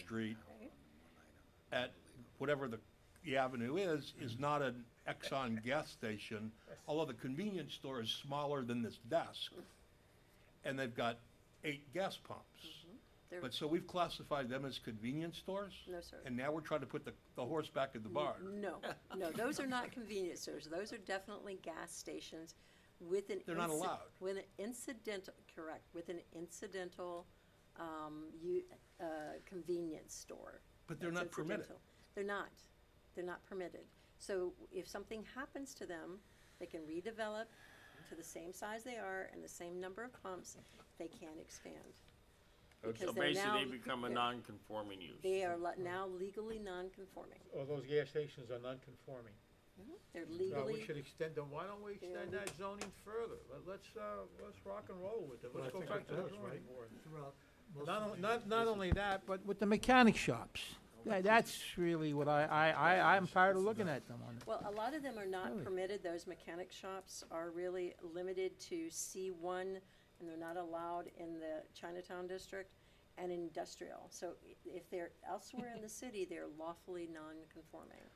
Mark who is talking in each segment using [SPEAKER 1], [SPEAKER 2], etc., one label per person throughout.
[SPEAKER 1] Street at whatever the, the avenue is,
[SPEAKER 2] Mm-hmm.
[SPEAKER 1] is not an Exxon gas station, although the convenience store is smaller than this desk. And they've got eight gas pumps.
[SPEAKER 2] Mm-hmm. They're-
[SPEAKER 1] But so we've classified them as convenience stores?
[SPEAKER 2] No, sir.
[SPEAKER 1] And now we're trying to put the, the horse back in the barn.
[SPEAKER 2] No, no, those are not convenience stores. Those are definitely gas stations with an.
[SPEAKER 1] They're not
[SPEAKER 2] inci-
[SPEAKER 1] allowed.
[SPEAKER 2] With an incidental, correct, with an incidental, um, you, uh, convenience store.
[SPEAKER 1] But they're
[SPEAKER 2] That's
[SPEAKER 1] not permitted.
[SPEAKER 2] incidental. They're not. They're not permitted. So if something happens to them, they can redevelop to the same size they are and the same number of pumps. They can expand.
[SPEAKER 3] So
[SPEAKER 2] Because they're now-
[SPEAKER 3] basically, they become a
[SPEAKER 2] yeah.
[SPEAKER 3] non-conforming use.
[SPEAKER 2] They are le- now legally non-conforming.
[SPEAKER 4] All those gas stations are non-conforming.
[SPEAKER 2] They're
[SPEAKER 4] No,
[SPEAKER 2] legally.
[SPEAKER 4] we should extend them, why don't we extend that zoning further? Let- Let's, uh, let's rock and roll with it, let's go back to the drawing board.
[SPEAKER 5] throughout most
[SPEAKER 4] Not,
[SPEAKER 5] of
[SPEAKER 4] on-
[SPEAKER 5] the-
[SPEAKER 4] not, not only that, but
[SPEAKER 6] But with the mechanic shops, tha- that's really what I, I, I, I'm tired of looking at them on.
[SPEAKER 2] Well, a lot of them are not
[SPEAKER 6] Really?
[SPEAKER 2] permitted, those mechanic shops are really limited to C one, and they're not allowed in the Chinatown district and industrial, so i- if they're elsewhere in the city, they're lawfully non-conforming.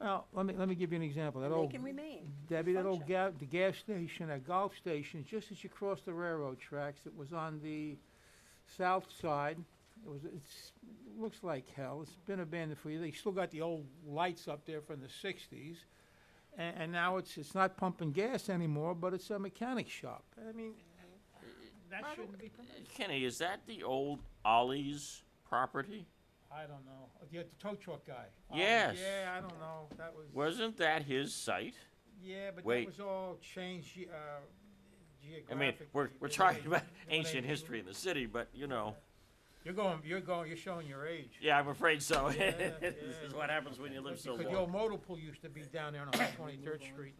[SPEAKER 6] Well, let me, let me give you an example. That
[SPEAKER 2] And they
[SPEAKER 6] old,
[SPEAKER 2] can remain,
[SPEAKER 6] Debbie, that old
[SPEAKER 2] function.
[SPEAKER 6] ga, the gas station, that golf station, just as you cross the railroad tracks, it was on the south side. It was, it's, looks like hell. It's been abandoned for years. They still got the old lights up there from the sixties. And, and now it's, it's not pumping gas anymore, but it's a mechanic shop. I mean, that
[SPEAKER 3] I don't-
[SPEAKER 6] shouldn't be permitted.
[SPEAKER 3] Kenny, is that the old Ollie's property?
[SPEAKER 6] I don't know. The, the tow truck guy. Oh,
[SPEAKER 3] Yes.
[SPEAKER 6] Yeah, I don't know. That was.
[SPEAKER 3] Wasn't that his site?
[SPEAKER 6] Yeah, but
[SPEAKER 3] Wait.
[SPEAKER 6] that was all changed ge- uh,
[SPEAKER 3] I mean,
[SPEAKER 6] geographically.
[SPEAKER 3] we're, we're
[SPEAKER 6] They-
[SPEAKER 3] talking
[SPEAKER 6] they-
[SPEAKER 3] about
[SPEAKER 6] they-
[SPEAKER 3] ancient history in the city, but you know,
[SPEAKER 6] You're going, you're going, you're showing your age.
[SPEAKER 3] yeah, I'm afraid so.
[SPEAKER 6] Yeah,
[SPEAKER 3] This
[SPEAKER 6] yeah.
[SPEAKER 3] is what happens when you live so
[SPEAKER 6] Because the old
[SPEAKER 3] long.
[SPEAKER 6] modal pool used to be down there on 123rd Street.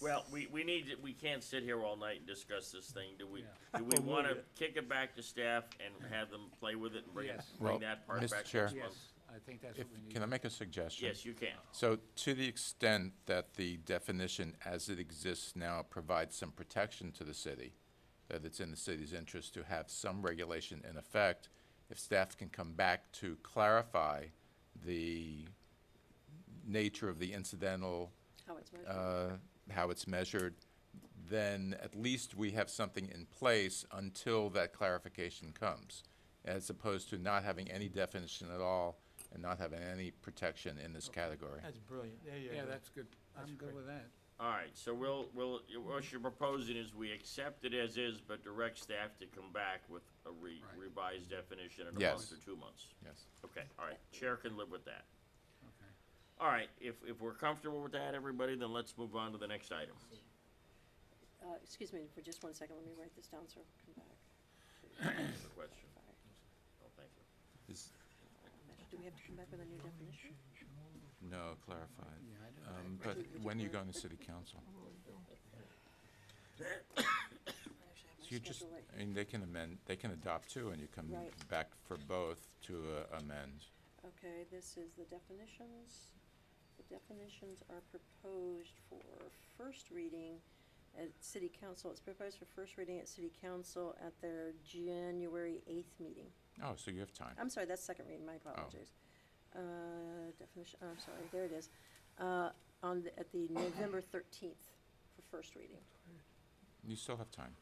[SPEAKER 3] Well, we, we need, to- we can't sit here all night and discuss this thing, do we? Do we wanna kick it back to staff and have them play with it and bring, it-
[SPEAKER 7] Yes.
[SPEAKER 3] bring
[SPEAKER 8] Well,
[SPEAKER 3] that part
[SPEAKER 8] Mr.
[SPEAKER 3] back
[SPEAKER 8] Chair.
[SPEAKER 3] next month?
[SPEAKER 7] I think that's
[SPEAKER 8] If,
[SPEAKER 7] what we need.
[SPEAKER 8] can I make a suggestion?
[SPEAKER 3] Yes, you can.
[SPEAKER 8] So to the extent that the definition as it exists now provides some protection to the city, that it's in the city's interest to have some regulation in effect, if staff can come back to clarify the nature of the incidental,
[SPEAKER 2] how it's measured.
[SPEAKER 8] uh, how it's measured, then at least we have something in place until that clarification comes, as opposed to not having any definition at all and not having any protection in this category.
[SPEAKER 6] That's brilliant. There you go.
[SPEAKER 7] Yeah, that's good. I'm good
[SPEAKER 6] great.
[SPEAKER 7] with that.
[SPEAKER 3] All right, so we'll, we'll, what you're proposing is we accept it as is, but direct staff to come back with a re-
[SPEAKER 7] Right.
[SPEAKER 3] revised definition in a month
[SPEAKER 8] Yes.
[SPEAKER 3] or two months.
[SPEAKER 8] Yes.
[SPEAKER 3] Okay, all right, chair can live with that. All right, if, if we're comfortable with that, everybody, then let's move on to the next item.
[SPEAKER 2] Uh, excuse me for just one second, let me write this down, so I'll come back.
[SPEAKER 3] Other question? Oh, thank you.
[SPEAKER 8] Is-
[SPEAKER 2] Do we have to come back with a new definition?
[SPEAKER 8] No, clarified.
[SPEAKER 7] Yeah, I don't
[SPEAKER 8] Um, But when are you going to city council?
[SPEAKER 2] I actually have my
[SPEAKER 8] So you just,
[SPEAKER 2] schedule right-
[SPEAKER 8] I mean, they can amend, they can adopt two, and you come
[SPEAKER 2] Right.
[SPEAKER 8] back for both to uh, amend.
[SPEAKER 2] Okay, this is the definitions. The definitions are proposed for first reading at city council. It's proposed for first reading at city council at their January eighth meeting.
[SPEAKER 8] Oh, so you have time.
[SPEAKER 2] I'm sorry, that's second reading, my apologies. Uh, definition, I'm sorry, there it is. Uh, on, the- at the November thirteenth for first reading.
[SPEAKER 8] You still have time.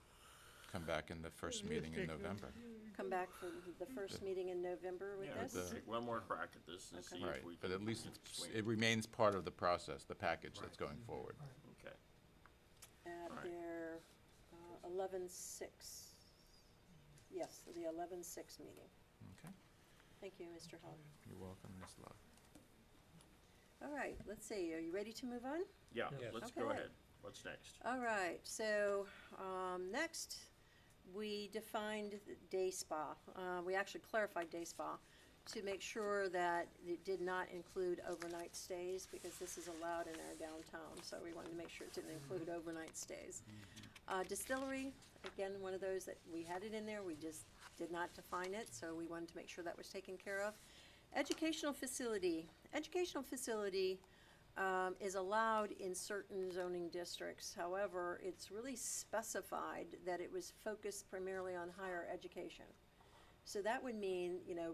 [SPEAKER 8] Come back in the first meeting in November.
[SPEAKER 2] Come back for the- the first meeting in November with
[SPEAKER 3] Yeah,
[SPEAKER 2] this?
[SPEAKER 3] let's take one more crack at this and
[SPEAKER 2] Okay.
[SPEAKER 3] see
[SPEAKER 8] Right,
[SPEAKER 3] if we can.
[SPEAKER 8] but at least
[SPEAKER 3] can
[SPEAKER 8] it's-
[SPEAKER 3] swing
[SPEAKER 8] it
[SPEAKER 3] it.
[SPEAKER 8] remains part of the process, the package that's going forward.
[SPEAKER 3] Okay,
[SPEAKER 2] at
[SPEAKER 3] Right.
[SPEAKER 2] their uh, eleven-six, yes, the eleven-six meeting.
[SPEAKER 8] Okay.
[SPEAKER 2] Thank you, Mr. Hall.
[SPEAKER 8] You're welcome, Ms. Love.
[SPEAKER 2] All right, let's see, are you ready to move on?
[SPEAKER 3] yeah, let's go
[SPEAKER 2] Okay.
[SPEAKER 3] ahead. What's next?
[SPEAKER 2] All right, so, um, next, we defined the day spa. Uh, we actually clarified day spa to make sure that it did not include overnight stays because this is allowed in our downtown, so we wanted to make sure it didn't include overnight stays. Uh, distillery, again, one of those that we had it in there, we just did not define it, so we wanted to make sure that was taken care of. Educational facility, educational facility, um, is allowed in certain zoning districts. However, it's really specified that it was focused primarily on higher education. So that would mean, you know,